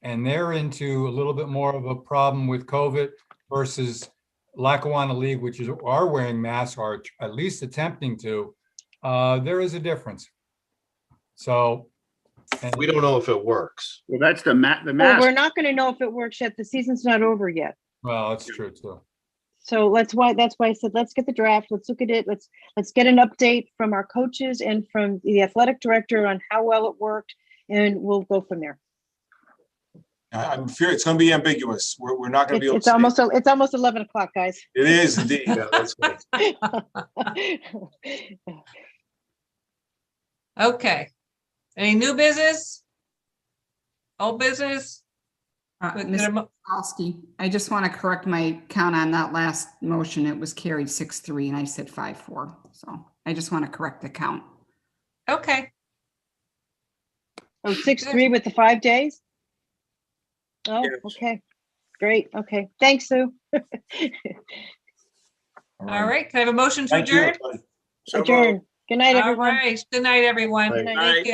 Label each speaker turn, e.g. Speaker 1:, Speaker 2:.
Speaker 1: And they're into a little bit more of a problem with COVID versus Lackawanna League, which is, are wearing masks or at least attempting to. Uh, there is a difference. So. and-
Speaker 2: We don't know if it works.
Speaker 3: Well, that's the ma, the
Speaker 4: Well, we're
Speaker 3: mask.
Speaker 4: not gonna know if it works yet. The season's not over yet.
Speaker 1: Well, that's true too.
Speaker 4: So let's why, that's why I said, let's get the draft. Let's look at it. Let's, let's get an update from our coaches and from the athletic director on how well it worked. And we'll go from there.
Speaker 5: I- I'm fear it's going to be ambiguous. We're, we're not going
Speaker 4: It's
Speaker 5: to be able
Speaker 4: it's
Speaker 5: to. say-
Speaker 4: almost, el- it's almost 11 o'clock, guys.
Speaker 5: It is indeed.
Speaker 2: Yeah, that's right.
Speaker 6: Okay. Any new business? Old business?
Speaker 7: Uh,
Speaker 6: Could
Speaker 7: Ms.
Speaker 6: get a mo-
Speaker 7: Kowalski, I just want to correct my count on that last motion. It was carried six, three, and I said five, four. So I just want to correct the count.
Speaker 6: Okay,
Speaker 4: Oh, six, three with the five days? Oh,
Speaker 5: Yes.
Speaker 4: okay. Great. Okay. Thanks, Sue.
Speaker 6: all right. Can I have a motion to
Speaker 5: Thank you.
Speaker 6: adjourn?
Speaker 5: everybody. So moved.
Speaker 4: Adjourn. Good night,
Speaker 6: All
Speaker 4: everyone.
Speaker 6: right. Good night, everyone.
Speaker 2: Good
Speaker 4: night.
Speaker 6: Thank you.